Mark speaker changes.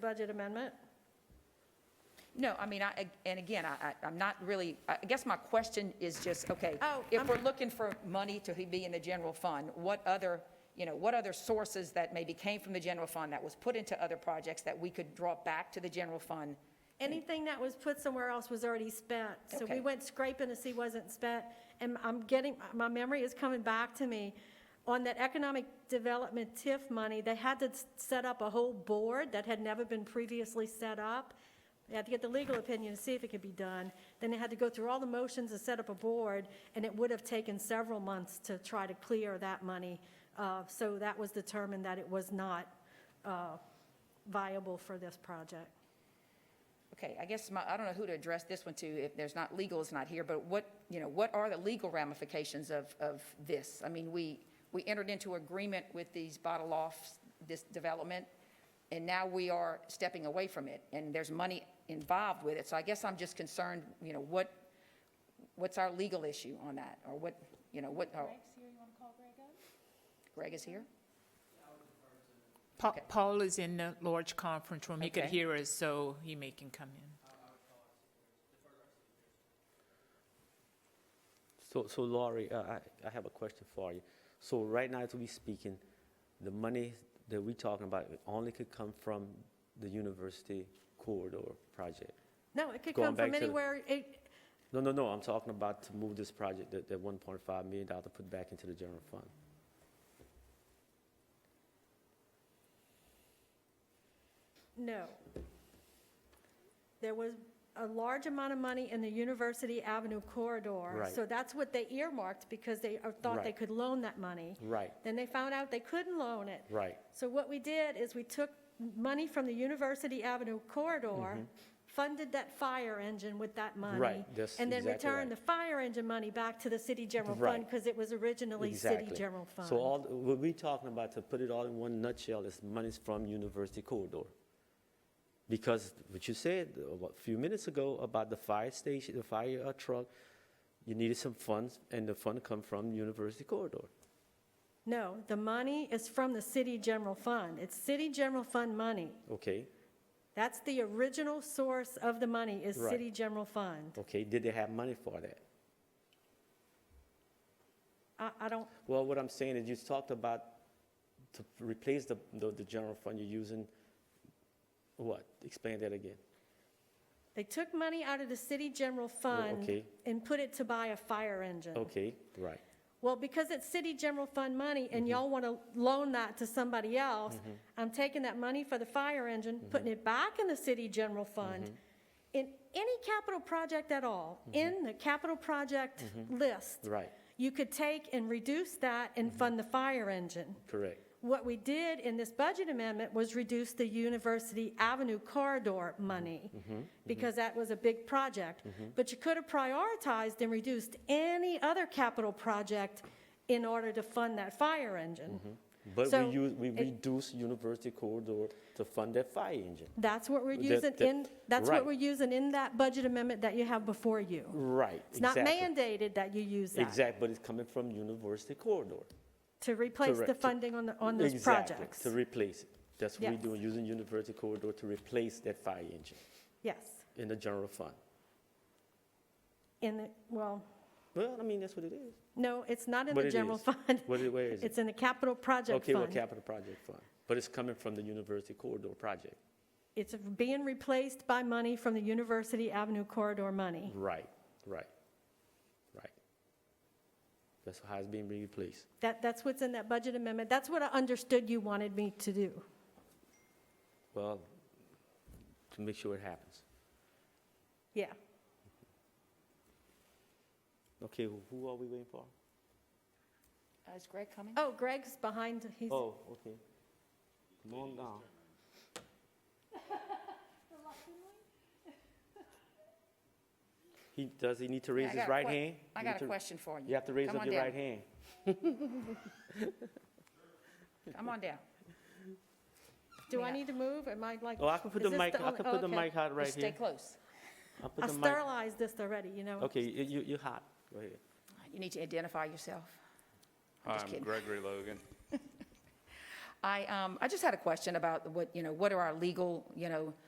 Speaker 1: budget amendment?
Speaker 2: No, I mean, I, ag- and again, I, I- I'm not really, I I guess my question is just, okay,
Speaker 1: Oh,
Speaker 2: if
Speaker 1: I'm-
Speaker 2: we're looking for money to be in the general fund, what other, you know, what other sources that maybe came from the general fund that was put into other projects that we could draw back to the general fund?
Speaker 1: Anything that was put somewhere else was already spent. So we
Speaker 2: Okay.
Speaker 1: went scraping to see wasn't spent. And I'm getting, my memory is coming back to me. On that economic development TIF money, they had to s- set up a whole board that had never been previously set up. They had to get the legal opinion to see if it could be done. Then they had to go through all the motions and set up a board, and it would have taken several months to try to clear that money. Uh, So that was determined that it was not uh, viable for this project.
Speaker 2: Okay, I guess my, I don't know who to address this one to, if there's not, legal is not here, but what, you know, what are the legal ramifications of, of this? I mean, we, we entered into agreement with these bottle offs, this development, and now we are stepping away from it, and there's money involved with it, so I guess I'm just concerned, you know, what, what's our legal issue on that, or what, you know, what, oh,
Speaker 3: Greg's here, you want to call Greg up?
Speaker 2: Greg is here?
Speaker 4: Pa-
Speaker 2: Okay.
Speaker 4: Paul is in the large conference room. He could
Speaker 2: Okay.
Speaker 4: hear us, so he may can come in.
Speaker 5: So, so Laurie, uh, I, I have a question for you. So right now, as we speaking, the money that we talking about only could come from the university corridor project.
Speaker 1: No, it could
Speaker 5: Going
Speaker 1: come from
Speaker 5: back to the-
Speaker 1: anywhere, it,
Speaker 5: No, no, no, I'm talking about to move this project, that, that one point five million dollar to put back into the general fund.
Speaker 1: no. There was a large amount of money in the University Avenue corridor.
Speaker 5: Right.
Speaker 1: So that's what they earmarked because they uh, thought they
Speaker 5: Right.
Speaker 1: could loan that money.
Speaker 5: Right,
Speaker 1: Then they found out they couldn't loan it.
Speaker 5: right,
Speaker 1: So what we did is we took money from the University Avenue corridor, funded that fire engine with that money.
Speaker 5: Mm-hmm. that's
Speaker 1: And then
Speaker 5: exactly
Speaker 1: returned the
Speaker 5: right.
Speaker 1: fire engine money back to the city general fund
Speaker 5: Right.
Speaker 1: because it was originally
Speaker 5: exactly.
Speaker 1: city general fund.
Speaker 5: So all, what we talking about, to put it all in one nutshell, is monies from university corridor. Because what you said a few minutes ago about the fire station, the fire uh, truck, you needed some funds, and the fund come from university corridor.
Speaker 1: No, the money is from the city general fund. It's city general fund money.
Speaker 5: Okay,
Speaker 1: That's the original source of the money is
Speaker 5: Right.
Speaker 1: city general fund.
Speaker 5: okay, did they have money for that?
Speaker 1: I, I don't,
Speaker 5: Well, what I'm saying is you talked about to replace the, the, the general fund you're using, what? Explain that again.
Speaker 1: they took money out of the city general fund
Speaker 5: okay.
Speaker 1: and put it to buy a fire engine.
Speaker 5: Okay, right.
Speaker 1: Well, because it's city general fund money
Speaker 5: Mm-hmm.
Speaker 1: and y'all want to loan that to somebody else, I'm taking that money for the fire engine,
Speaker 5: Mm-hmm.
Speaker 1: putting it back in the city general fund. In any capital project at all,
Speaker 5: Mm-hmm.
Speaker 1: in the capital project list.
Speaker 5: Right.
Speaker 1: You could take and reduce that and
Speaker 5: Mm-hmm.
Speaker 1: fund the fire engine.
Speaker 5: Correct.
Speaker 1: What we did in this budget amendment was reduce the University Avenue corridor money,
Speaker 5: Mm-hmm.
Speaker 1: because that was a big project. But you could have prioritized and reduced any other capital project in order to fund that fire engine.
Speaker 5: Mm-hmm. But
Speaker 1: So
Speaker 5: we use, we
Speaker 1: it-
Speaker 5: reduce university corridor to fund that fire engine.
Speaker 1: That's what we're
Speaker 5: That-
Speaker 1: using
Speaker 5: that-
Speaker 1: in, that's what
Speaker 5: right.
Speaker 1: we're using in that budget amendment that you have before you.
Speaker 5: Right.
Speaker 1: It's not
Speaker 5: exactly.
Speaker 1: mandated that you use that
Speaker 5: Exact, but it's coming from university corridor.
Speaker 1: to replace the
Speaker 5: Correct.
Speaker 1: funding on, the on those
Speaker 5: Exactly,
Speaker 1: projects.
Speaker 5: To replace it. That's what we're
Speaker 1: Yes.
Speaker 5: doing, using university corridor to replace that fire engine
Speaker 1: Yes.
Speaker 5: in the general fund.
Speaker 1: In the, well,
Speaker 5: Well, I mean, that's what it is.
Speaker 1: no, it's not in
Speaker 5: What
Speaker 1: the
Speaker 5: it
Speaker 1: general
Speaker 5: is.
Speaker 1: fund.
Speaker 5: What it- where is it?
Speaker 1: It's in the capital project
Speaker 5: Okay, well,
Speaker 1: fund.
Speaker 5: capital project fund, but it's coming from the university corridor project.
Speaker 1: It's being replaced by money from the University Avenue corridor money.
Speaker 5: Right, right, right. That's how it's being replaced.
Speaker 1: That, that's what's in that budget amendment. That's what I understood you wanted me to do.
Speaker 5: Well, to make sure it happens.
Speaker 1: Yeah.
Speaker 5: Okay, who- who are we waiting for?
Speaker 2: Uh, Is Greg coming?
Speaker 1: Oh, Greg's behind, he's,
Speaker 5: Oh, okay. Come on down. He, does he need to raise
Speaker 2: I got
Speaker 5: his
Speaker 2: a
Speaker 5: right
Speaker 2: que-
Speaker 5: hand?
Speaker 2: I got
Speaker 5: You need
Speaker 2: a
Speaker 5: to-
Speaker 2: question for you.
Speaker 5: You have to raise
Speaker 2: Come
Speaker 5: up
Speaker 2: on
Speaker 5: your
Speaker 2: down.
Speaker 5: right hand.
Speaker 2: Come on down.
Speaker 1: do I
Speaker 2: Yeah.
Speaker 1: need to move? Am I like?
Speaker 5: Oh, I can put
Speaker 1: is
Speaker 5: the
Speaker 1: this
Speaker 5: mic, I
Speaker 1: only-
Speaker 5: can put the
Speaker 1: okay.
Speaker 5: mic hot right
Speaker 2: Just Stay
Speaker 5: here.
Speaker 2: close.
Speaker 5: I'll put
Speaker 1: I
Speaker 5: the mic.
Speaker 1: sterilized this already, you know?
Speaker 5: Okay, you, you- you're hot. Go ahead.
Speaker 2: You need to identify yourself.
Speaker 6: Hi,
Speaker 2: just
Speaker 6: I'm
Speaker 2: kidding.
Speaker 6: Gregory Logan.
Speaker 2: I, um, I just had a question about what, you know, what are our legal, you know,